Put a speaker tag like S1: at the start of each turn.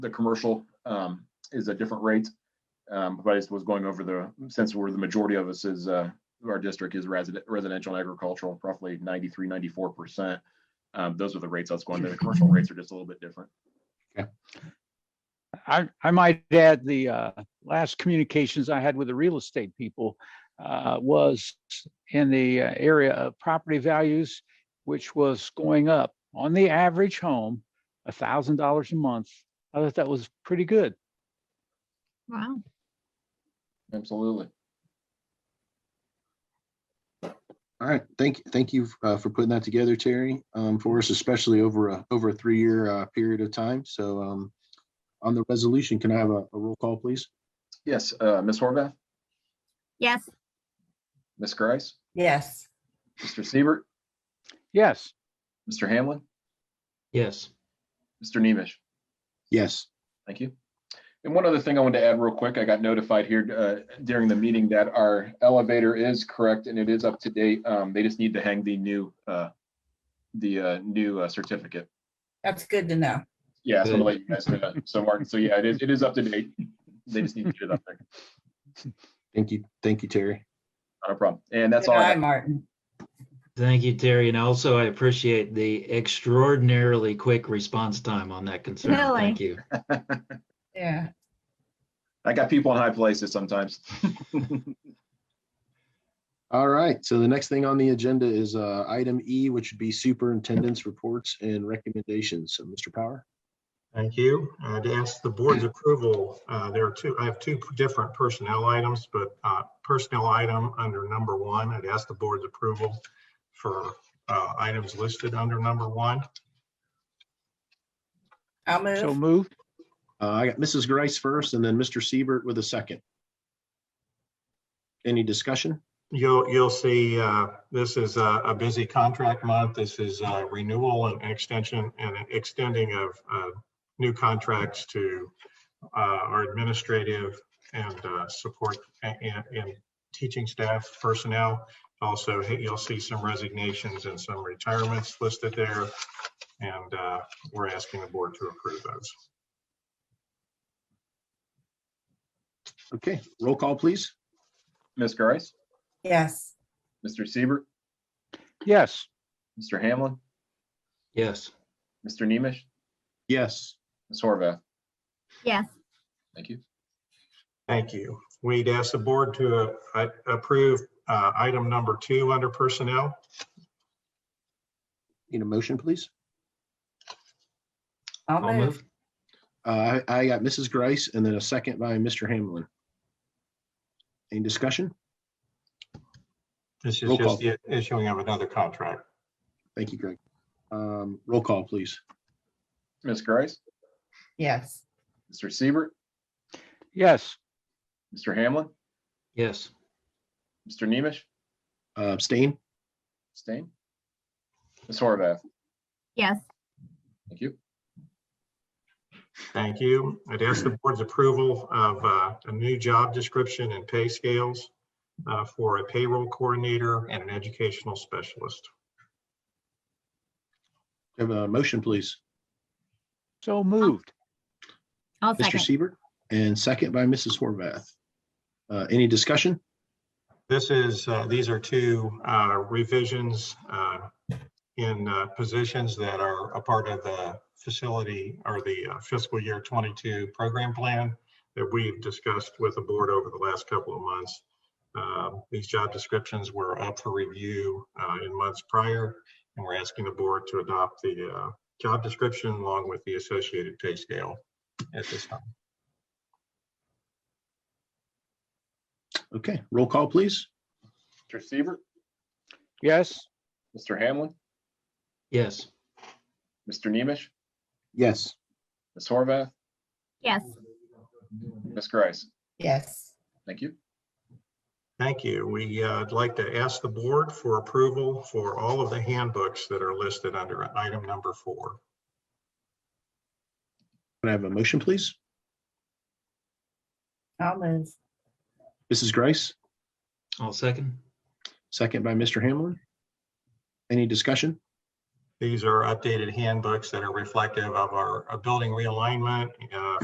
S1: the commercial um, is a different rate. Um, But I just was going over the, since we're the majority of us is, uh, our district is resident, residential and agricultural, roughly 93, 94%. Um, Those are the rates I was going to. The commercial rates are just a little bit different.
S2: I, I might add, the uh, last communications I had with the real estate people uh, was in the uh, area of property values, which was going up on the average home, a thousand dollars a month. I thought that was pretty good.
S3: Wow.
S1: Absolutely.
S4: All right, thank, thank you uh, for putting that together, Terry, um, for us, especially over a, over a three-year uh, period of time. So um, on the resolution, can I have a a roll call, please?
S1: Yes, uh, Ms. Horvath,
S3: Yes.
S1: Ms. Grice,
S5: Yes.
S1: Mr. Siebert,
S2: Yes,
S1: Mr. Hamlin,
S6: Yes,
S1: Mr. Nemish.
S4: Yes,
S1: Thank you. And one other thing I wanted to add real quick, I got notified here uh, during the meeting that our elevator is correct and it is up to date. Um, They just need to hang the new, uh, the uh, new uh, certificate.
S5: That's good to know.
S1: Yeah, so I'll let you guys know that. So Martin, so yeah, it is, it is up to date. They just need to get it up there.
S4: thank you, thank you, Terry.
S1: Not a problem. And that's
S5: Good
S1: all. I
S5: eye,
S1: have.
S5: Martin.
S6: thank you, Terry. And also I appreciate the extraordinarily quick response time on that concern.
S3: Really?
S6: Thank you.
S5: Yeah.
S1: I got people in high places sometimes.
S4: All right, so the next thing on the agenda is uh, item E, which would be superintendent's reports and recommendations. So Mr. Power?
S7: Thank you. Uh, To ask the board's approval, uh, there are two, I have two different personnel items, but uh, personnel item under number one, I'd ask the board's approval for uh, items listed under number one.
S5: I'll
S2: so
S5: move.
S2: moved.
S4: Uh, I got Mrs. Grice first and then Mr. Siebert with a second. Any discussion?
S7: You'll, you'll see, uh, this is a a busy contract month. This is uh, renewal and extension and extending of uh, new contracts to uh, our administrative and uh, support and, and- and teaching staff personnel. Also, you'll see some resignations and some retirements listed there. And uh, we're asking the board to approve those.
S4: Okay, roll call, please.
S1: Ms. Grice,
S5: Yes.
S1: Mr. Siebert,
S2: Yes,
S1: Mr. Hamlin,
S6: Yes,
S1: Mr. Nemish,
S4: Yes,
S1: Ms. Horvath.
S3: Yes.
S1: Thank you.
S7: Thank you. We'd ask the board to uh, a- approve uh, item number two under personnel.
S4: need a motion, please?
S5: I'll
S6: I'll
S5: move.
S6: move.
S4: Uh, I I got Mrs. Grice and then a second by Mr. Hamlin. Any discussion?
S7: This is
S4: Roll call.
S7: just the issuing of another contract.
S4: Thank you, Greg. Um, Roll call, please.
S1: Ms. Grice,
S5: Yes.
S1: Mr. Siebert,
S2: yes,
S1: Mr. Hamlin,
S6: yes,
S1: Mr. Nemish,
S4: Uh, Abstain?
S1: Stain? Ms. Horvath,
S3: Yes.
S1: thank you.
S7: Thank you. I'd ask the board's approval of uh, a new job description and pay scales uh, for a payroll coordinator and an educational specialist.
S4: Have a motion, please.
S2: so moved.
S3: I'll
S4: Mr.
S3: second.
S4: Siebert and second by Mrs. Horvath. Uh, Any discussion?
S7: This is, uh, these are two uh, revisions uh, in uh, positions that are a part of the facility or the uh, fiscal year 22 program plan that we've discussed with the board over the last couple of months. Um, These job descriptions were up for review uh, in months prior, and we're asking the board to adopt the uh, job description along with the associated pay scale at this time.
S4: Okay, roll call, please.
S1: Mr. Siebert,
S2: Yes,
S1: Mr. Hamlin,
S6: yes,
S1: Mr. Nemish,
S4: Yes.
S1: Ms. Horvath,
S3: Yes.
S1: Ms. Grice,
S5: Yes.
S1: thank you.
S7: Thank you. We, uh, would like to ask the board for approval for all of the handbooks that are listed under item number four.
S4: Can I have a motion, please?
S5: I'll move.
S4: Mrs. Grice,
S6: I'll second.
S4: second by Mr. Hamlin. Any discussion?
S7: These are updated handbooks that are reflective of our uh, building realignment, uh,